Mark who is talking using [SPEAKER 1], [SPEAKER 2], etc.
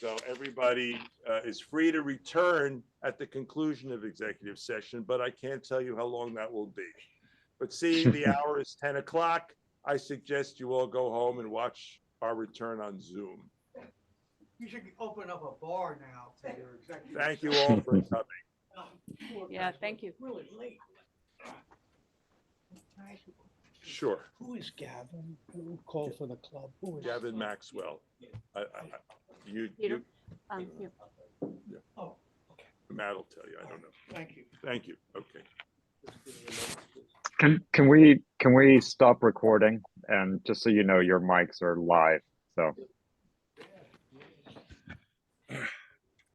[SPEAKER 1] So everybody uh, is free to return at the conclusion of executive session, but I can't tell you how long that will be. But seeing the hour is 10 o'clock, I suggest you all go home and watch our return on Zoom.
[SPEAKER 2] You should open up a bar now for your executive.
[SPEAKER 1] Thank you all for coming.
[SPEAKER 2] session.
[SPEAKER 3] Yeah, thank you.
[SPEAKER 2] Really late.
[SPEAKER 1] Sure,
[SPEAKER 2] Who is Gavin? Who called for the club? Who is?
[SPEAKER 1] Gavin Maxwell. I- I- I- You,
[SPEAKER 3] Peter,
[SPEAKER 1] you-
[SPEAKER 3] um, here.
[SPEAKER 2] Oh,
[SPEAKER 1] Matt will tell you, I don't know.
[SPEAKER 2] thank you.
[SPEAKER 1] Thank you, okay.
[SPEAKER 4] Can can we can we stop recording? And just so you know, your mics are live. So